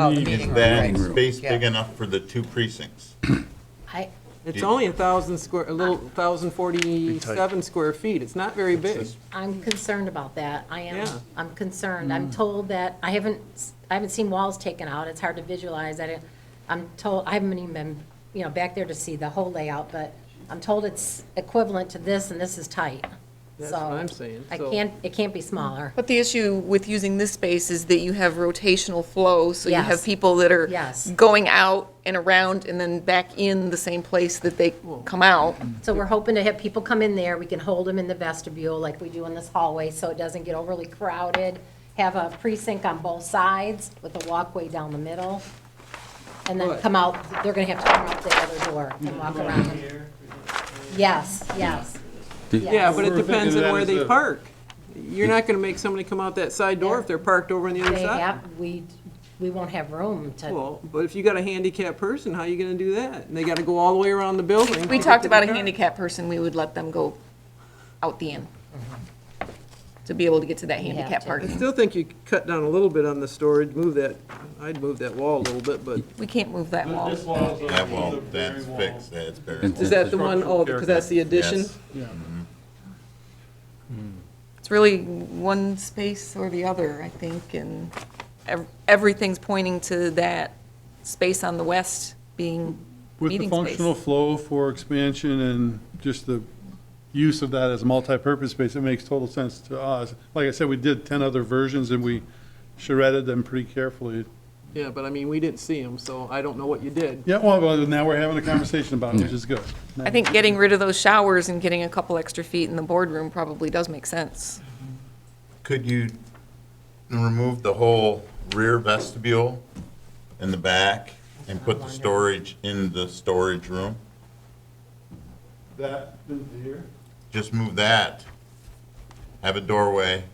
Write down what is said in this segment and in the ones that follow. Oh, the meeting That room, right. space big enough for the two precincts. I, It's only a thousand square, a little, thousand forty-seven square feet, it's not very big. I'm concerned about that. I am, Yeah. I'm concerned. I'm told that, I haven't, s- I haven't seen walls taken out. It's hard to visualize. I didn't, I'm told, I haven't even been, you know, back there to see the whole layout, but I'm told it's equivalent to this and this is tight. That's what So, I'm saying, I so- can't, it can't be smaller. But the issue with using this space is that you have rotational flow, so you Yes. have people that are Yes. going out and around and then back in the same place that they come out. mm-hmm. So we're hoping to have people come in there, we can hold them in the vestibule like we do in this hallway, so it doesn't get overly crowded. Have a precinct on both sides with a walkway down the middle. And then Good. come out, they're gonna have to come out the other door and walk around. Yes, yes. Yeah, but it We're thinking depends on that where is they a- park. You're not gonna make somebody come out that side door if they're parked over on the other They side. have, we, we won't have room to, Well, but if you got a handicapped person, how you gonna do that? And they gotta go all the way around the building. to We get talked to about a their car. handicap person, we would let them go out the end Mm-hmm. to be able to get to that have handicap to. I parking. still think you could cut down a little bit on the storage, move that, I'd move that wall a little bit, but We can't move that wall. This wall is a- That wall, is a that's very wall. fixed, that's buried. is that the one, oh, because that's the addition? Yes. It's really one space or the other, I think, and ev- everything's pointing to that space on the west being With the meeting functional space. flow for expansion and just the use of that as a multi-purpose space, it makes total sense to us. Like I said, we did 10 other versions and we charretted them pretty carefully. Yeah, but I mean, we didn't see them, so I don't know what you did. Yeah, well, well, now we're having a conversation about it, which is good. I think getting rid of those showers and getting a couple extra feet in the boardroom probably does make sense. Could you remove the whole rear vestibule in the back and put the storage in the storage room? That, here? Just move that. Have a doorway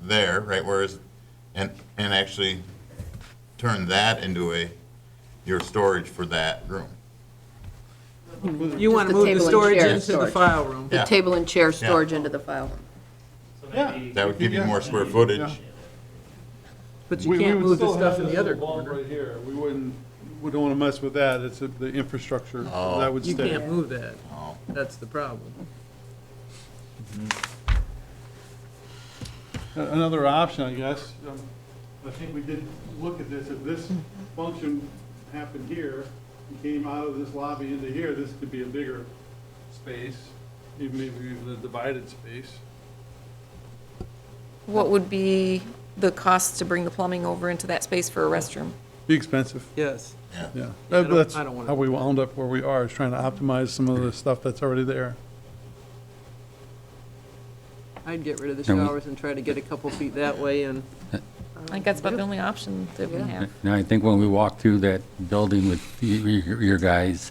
there, right where is, and, and actually turn that into a, your storage for that room. You wanna the move table the and storage chair into the storage. file room. The Yeah. table and chair storage into the file room. Yeah. That would give you more square footage. But We- you we can't would move the still stuff have in this the other little wall corner. Right here, we wouldn't, we don't want to mess with that, it's the infrastructure, that would You stay. can't move that. Oh. That's the problem. A- Another option, I guess, um, I think we did look at this, if this function happened here, and came out of this lobby into here, this could be a bigger space, even maybe even a divided space. What would be the cost to bring the plumbing over into that space for a restroom? Be expensive, Yes. Yeah. yeah. I don't- That's I don't wanna- how we wound up where we are, is trying to optimize some of the stuff that's already there. I'd get rid of the And we- showers and try to get a couple feet that way and, I think that's about the only option that we have. Now, I think when we walked through that building with y- y- your guys,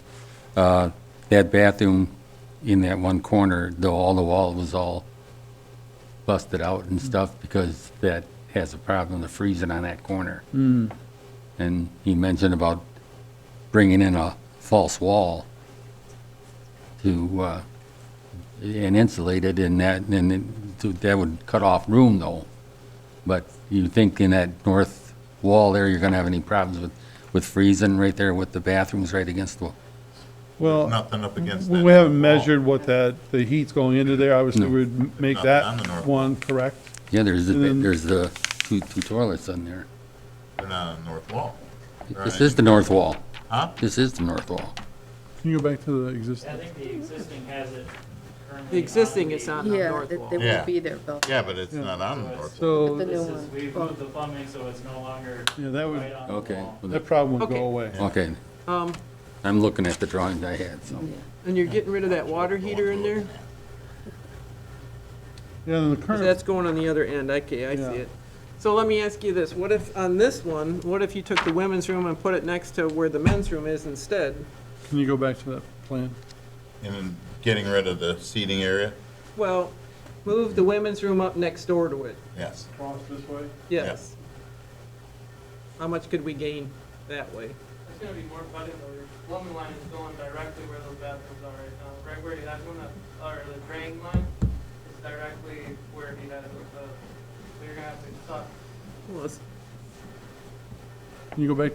uh, that bathroom in that one corner, though all the wall was all busted out and stuff, because that has a problem, the freezing on that corner. And he mentioned about bringing in a false wall to, uh, and insulate it and that, and then to- that would cut off room, though. But you think in that north wall there, you're gonna have any problems with, with freezing right there with the bathrooms right against the, Well, Nothing up against that. we haven't wall. measured what that, the heat's going into there, obviously, we'd make Nothing on the that north. one correct. yeah, there's, the- And then- there's the two, two toilets in there. They're not on the uh, north wall. This is the north wall. Huh? This is the north wall. Can you go back to the existing? I think the existing has it currently. the existing on is on the Yeah, north it wall. it Yeah. would be there, Bill. Yeah, but it's not on the north wall. So. The new This is, one. we've moved the plumbing, so it's no longer Yeah, that would- right on the Okay, wall. That problem would Okay. go away. okay. Um, I'm looking at the drawings I had, so. and you're getting rid of that water heater in there? 'Cause Yeah, then the That's current, going on the other end. Okay, I see Yeah. it. So let me ask you this. What if, on this one, what if you took the women's room and put it next to where the men's room is instead? can you go back to that plan? And then getting rid of the seating area? Well, move the women's room up next door to it. Yes. Across this way? Yes. How much could we gain that way? It's gonna be more flooded though. Your plumbing line is going directly where those bathrooms are right now. Right where you have one, uh, or the drain line is directly where he has the, so you're gonna have to suck Well, it's- Can you go back